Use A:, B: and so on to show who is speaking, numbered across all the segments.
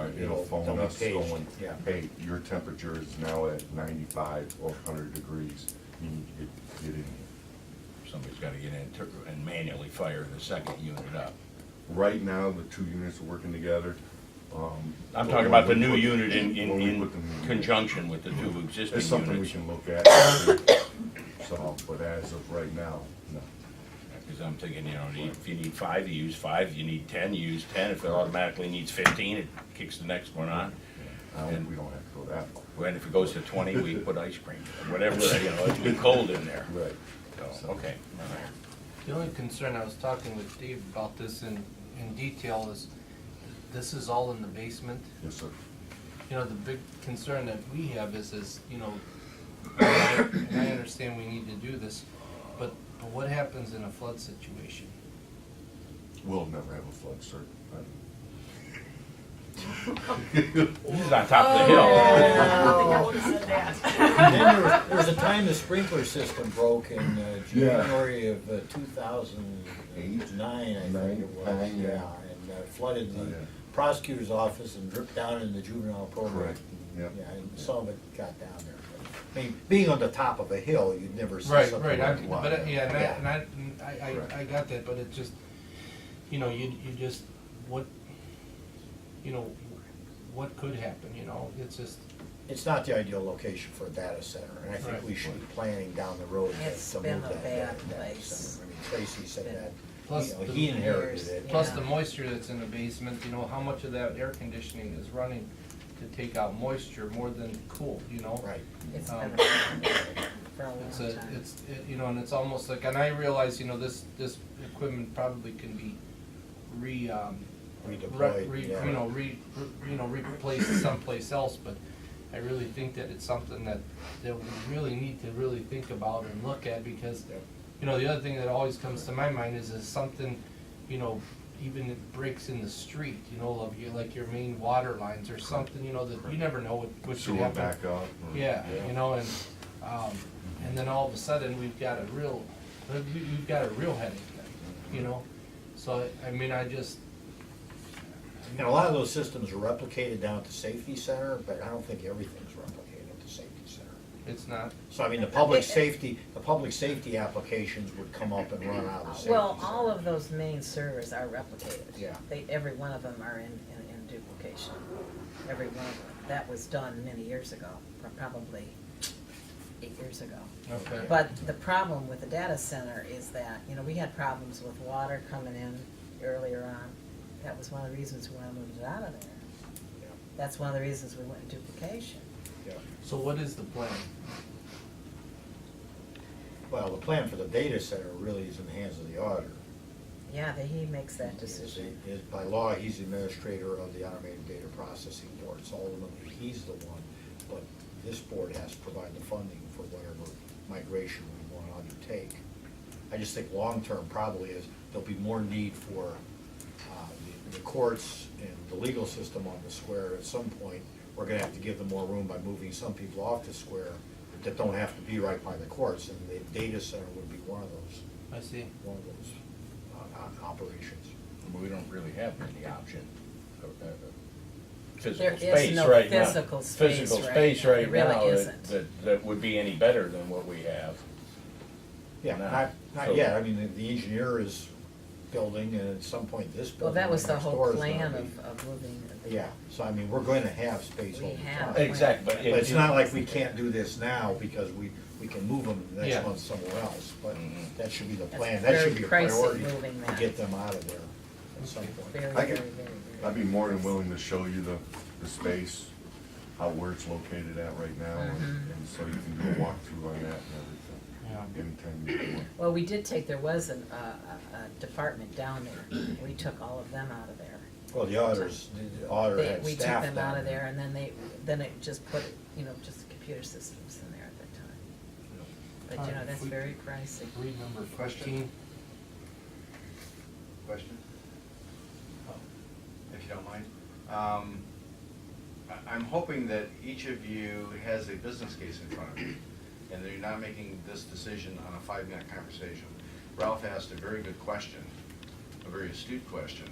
A: Uh, It'll
B: It'll
A: phone
B: be
A: us
B: paged,
A: going,
B: yeah.
A: hey, your temperature is now at ninety-five or hundred degrees, you need to get, get in here.
C: Somebody's gotta get in tur- and manually fire the second unit up.
A: Right now, the two units are working together, um.
C: I'm
A: but
C: talking
A: when
C: about the
A: we
C: new
A: put-
C: unit in, in,
A: when we
C: in
A: put the new unit-
C: conjunction with the two existing
A: It's something we
C: units.
A: can look at, so, but as of right now, no.
C: Because I'm thinking, you know, if you need five, you use five, you need ten, you use ten, if it automatically needs fifteen, it kicks the next one on.
A: I don't, we don't have to go that far.
C: And if it goes to twenty, we put ice cream, or whatever, you know, it's too cold in there,
A: Right.
C: so, okay, all right.
D: The only concern, I was talking with Dave about this in, in detail, is this is all in the basement.
A: Yes, sir.
D: You know, the big concern that we have is, is, you know, and I understand we need to do this, but, but what happens in a flood situation?
A: We'll never have a flood, sir.
C: This is on top of the hill.
E: And then there was, there was a time the sprinkler system broke in uh,
A: Yeah.
E: January of uh, 2009, I think it was.
A: Nine, yeah.
E: And uh, flooded
A: Oh,
E: the
A: yeah.
E: prosecutor's office and dripped down in the juvenile program.
A: Correct, yep.
E: Yeah, and some of it got down there. but, I mean, being on the top of a hill, you'd never see
D: Right,
E: something like
D: right,
E: that.
D: I, but, I- yeah, and I,
E: Yeah.
D: and I- and I, I, I got that, but it just, you know, you, you just, what, you know, what could happen, you know, it's just,
E: It's not the ideal location for a data center, and I think
D: Right.
E: we should be planning down the road to-
F: It's
E: to
F: been
E: move
F: a
E: that
F: bad
E: data- data
F: place.
E: center. I mean, Tracy
F: Been-
E: said that,
D: Plus
E: you know,
D: the
E: he inherited
F: years,
E: it.
D: Plus
F: Yeah.
D: the moisture that's in the basement, you know, how much of that air conditioning is running to take out moisture more than cool, you know?
E: Right.
F: It's
D: Um,
F: been a- for a long
D: It's a,
F: time.
D: it's, it- you know, and it's almost like, and I realize, you know, this, this equipment probably can be re, um, re-
E: Redeployed,
D: re-
E: yeah.
D: You know, re, re- you know, replaced someplace else, but I really think that it's something that, that we really need to really think about and look at, because, you know, the other thing that always comes to my mind is, is something, you know, even it breaks in the street, you know, of your, like your main water lines or something, you know, that you never know what, what should
A: Sewer
D: happen.
A: backup. Mm-hmm. or-
D: Yeah, you know, and, um, and then all of a sudden, we've got a real, we- we've got a real headache, then, you know? So, I- I mean, I just,
E: And a lot of those systems are replicated down at the safety center, but I don't think everything's replicated at the safety center.
D: it's not,
E: So I mean, the public safety, the public safety applications would come up and run out of the safety center.
F: Well, all of those main servers are replicated.
E: Yeah.
F: They, every one of them are in, in, in duplication, every one of them. That was done many years ago, pro- probably eight years ago.
D: okay.
F: But the problem with the data center is that, you know, we had problems with water coming in earlier on. That was one of the reasons we wanted to move it out of there.
E: Yeah,
F: That's one of the reasons we went in duplication.
E: yeah.
D: So what is the plan?
E: Well, the plan for the data center really is in the hands of the auditor.
F: Yeah, that he makes that decision.
E: Is- is- By law, he's the administrator of the automated data processing board, so ultimately, he's the one. But this board has to provide the funding for whatever migration we want to undertake. I just think long-term probably is, there'll be more need for uh, the- the courts and the legal system on the square at some point. We're going to have to give them more room by moving some people off the square that don't have to be right by the courts, and the data center would be one of those,
D: I see.
E: one of those uh, o- operations.
C: We don't really have any option of, uh, uh, physical
F: There is
C: space
F: no
C: right now.
F: physical space
C: Physical
F: right
C: space
F: now.
C: right
F: There really
C: now that-
F: isn't.
C: that, that would be any better than what we have.
E: Yeah,
C: No.
E: not,
C: So-
E: not yet, I mean, the- the engineer is building, and at some point, this
F: Well,
E: building.
F: that was the
E: next
F: whole
E: door is gonna
F: plan
E: be-
F: of, of moving the.
E: Yeah, so I mean, we're going to have space
F: We
E: over
F: have.
E: time.
F: Hey.
C: Exactly, but.
E: But
C: it-
E: it's not like we can't do this now, because we, we can move them the
D: Yeah.
E: next month somewhere else, but
C: Mhm.
E: that should be the
F: Mm-hmm. That's
E: plan, that should
F: very
E: be a
F: pricey,
E: priority
F: moving
E: to
F: that.
E: get them out of there at some point.
F: Very,
A: I
F: very,
A: get-
F: very,
A: I'd be
F: very.
A: more than willing to show you the, the space, how, where it's located at right now, and and so you can do a walkthrough on that
D: Yeah.
A: and everything. Anytime you want.
F: Well, we did take, there was an, uh, a, a department down there. We took all of them out of there.
E: Well, the auditors, the auditor
F: They,
E: had
F: we took
E: staff
F: them
E: down
F: out of there and then they, then it just put, you know, just computer systems in there at that time. But you know,
D: Alright,
F: that's
D: we-
F: very pricey.
D: Read number fifteen.
G: Question? question, Oh, if you don't mind. Um, I- I'm hoping that each of you has a business case in front of you, and that you're not making this decision on a five-minute conversation. Ralph asked a very good question, a very astute question,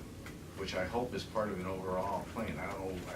G: which I hope is part of an overall plan. I don't know,